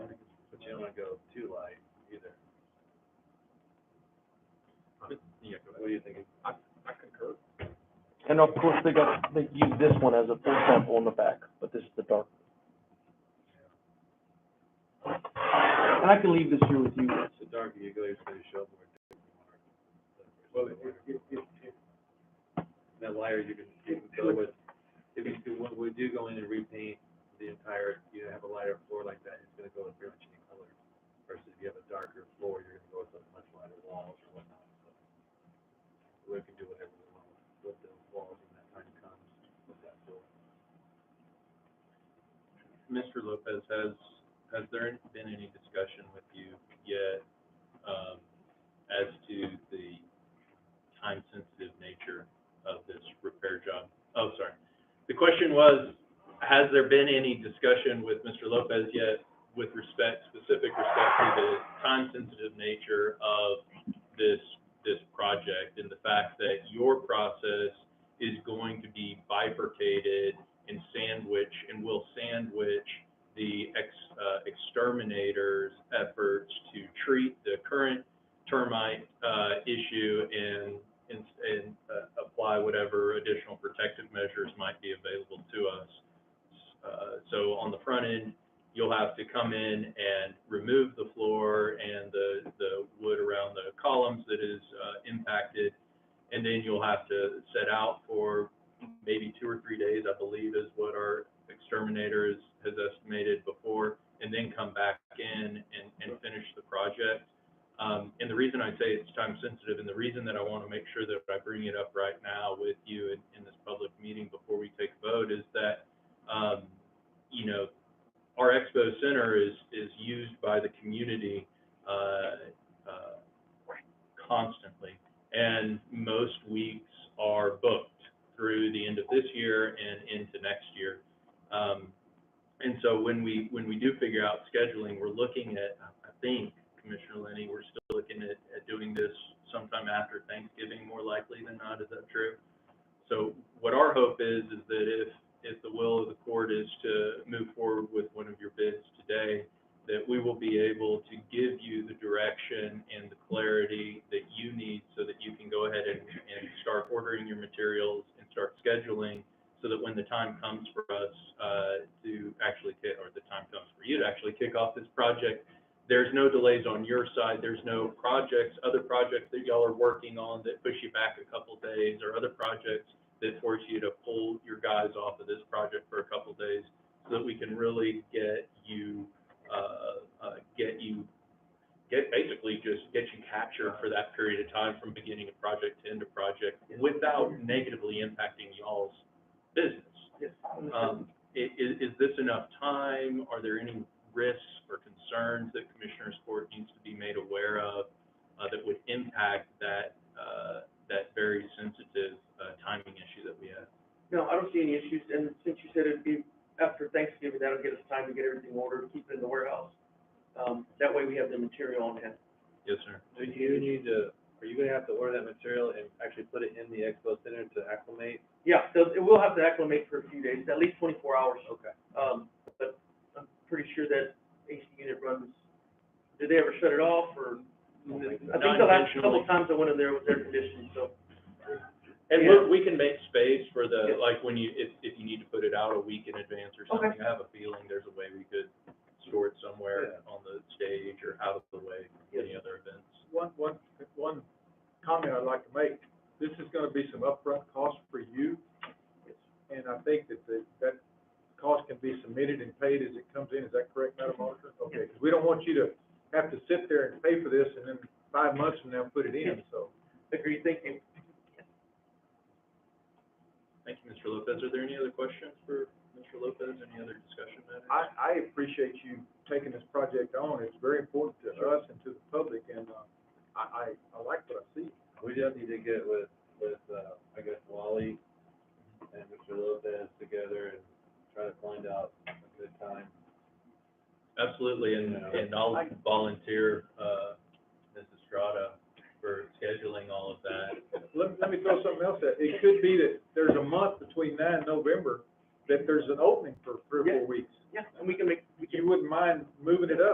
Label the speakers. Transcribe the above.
Speaker 1: wanna go too light either.
Speaker 2: Yeah, go
Speaker 1: What are you thinking?
Speaker 2: I concur.
Speaker 3: And of course, they got, they use this one as a full sample in the back, but this is the dark. And I can leave this here with you.
Speaker 1: So dark, you go, you're supposed to show up more.
Speaker 2: Well, it, it, it, it,
Speaker 1: That liar, you can, you can fill with, if you do, what we do go in and repaint the entire, you have a lighter floor like that, it's gonna go with pretty much any color. Versus if you have a darker floor, you're gonna go with a much lighter walls or whatnot, so. We can do whatever we want with the walls when that time comes with that floor.
Speaker 2: Mr. Lopez, has, has there been any discussion with you yet, um, as to the time-sensitive nature of this repair job? Oh, sorry. The question was, has there been any discussion with Mr. Lopez yet with respect, specific respect to the time-sensitive nature of this, this project and the fact that your process is going to be bifurcated and sandwich, and will sandwich the ex, uh, exterminator's efforts to treat the current termite, uh, issue and, and, and, uh, apply whatever additional protective measures might be available to us. Uh, so on the front end, you'll have to come in and remove the floor and the, the wood around the columns that is, uh, impacted. And then you'll have to set out for maybe two or three days, I believe is what our exterminator is, has estimated before, and then come back in and, and finish the project. Um, and the reason I say it's time sensitive and the reason that I want to make sure that I bring it up right now with you in, in this public meeting before we take a vote is that, um, you know, our expo center is, is used by the community, uh, uh, constantly. And most weeks are booked through the end of this year and into next year. Um, and so when we, when we do figure out scheduling, we're looking at, I think, Commissioner Lenny, we're still looking at, at doing this sometime after Thanksgiving, more likely than not, is that true? So what our hope is, is that if, if the will of the court is to move forward with one of your bids today, that we will be able to give you the direction and the clarity that you need so that you can go ahead and, and start ordering your materials and start scheduling so that when the time comes for us, uh, to actually, ki- or the time comes for you to actually kick off this project, there's no delays on your side, there's no projects, other projects that y'all are working on that push you back a couple days or other projects that force you to pull your guys off of this project for a couple days so that we can really get you uh, uh, get you, get, basically just get you captured for that period of time from beginning of project to end of project without negatively impacting y'all's business. Um, i- i- is this enough time? Are there any risks or concerns that Commissioners Court needs to be made aware of, uh, that would impact that, uh, that very sensitive, uh, timing issue that we have?
Speaker 4: No, I don't see any issues, and since you said it'd be after Thanksgiving, that'll get us time to get everything ordered, keep it in the warehouse. Um, that way we have the material on hand.
Speaker 2: Yes, sir.
Speaker 1: Do you need to, are you gonna have to order that material and actually put it in the expo center to acclimate?
Speaker 4: Yeah, so it will have to acclimate for a few days, at least twenty-four hours.
Speaker 1: Okay.
Speaker 4: Um, but I'm pretty sure that AC unit runs, did they ever shut it off, or?
Speaker 2: Not
Speaker 4: I think the last couple
Speaker 2: intentionally.
Speaker 4: of times I went in there was air conditioned, so.
Speaker 2: And
Speaker 4: Yeah.
Speaker 2: look, we can make space for the,
Speaker 4: Yeah.
Speaker 2: like, when you, if, if you need to put it out a week in advance or
Speaker 4: Okay.
Speaker 2: something, I have a feeling there's a way we could store it somewhere on the stage or out of the way from any other events.
Speaker 5: one, one, one comment I'd like to make, this is gonna be some upfront cost for you. And I think that the, that cost can be submitted and paid as it comes in, is that correct, Madam Auditor? Okay, 'cause we don't want you to have to sit there and pay for this and then five months from now put it in, so.
Speaker 4: Agreed, thank you.
Speaker 2: Thank you, Mr. Lopez. Are there any other questions for Mr. Lopez? Any other discussion matters?
Speaker 5: I, I appreciate you taking this project on, it's very important to us and to the public, and, uh, I, I, I like what I see.
Speaker 1: We just need to get with, with, uh, I guess Wally and Mr. Lopez together and try to find out a good time.
Speaker 2: Absolutely, and,
Speaker 1: Yeah.
Speaker 2: and I'll volunteer, uh, Ms. Estrada for scheduling all of that.
Speaker 5: Let, let me throw something else at, it could be that there's a month between now and November, that there's an opening for three or four weeks.
Speaker 4: Yeah, and we can make, we can
Speaker 5: You wouldn't mind moving it up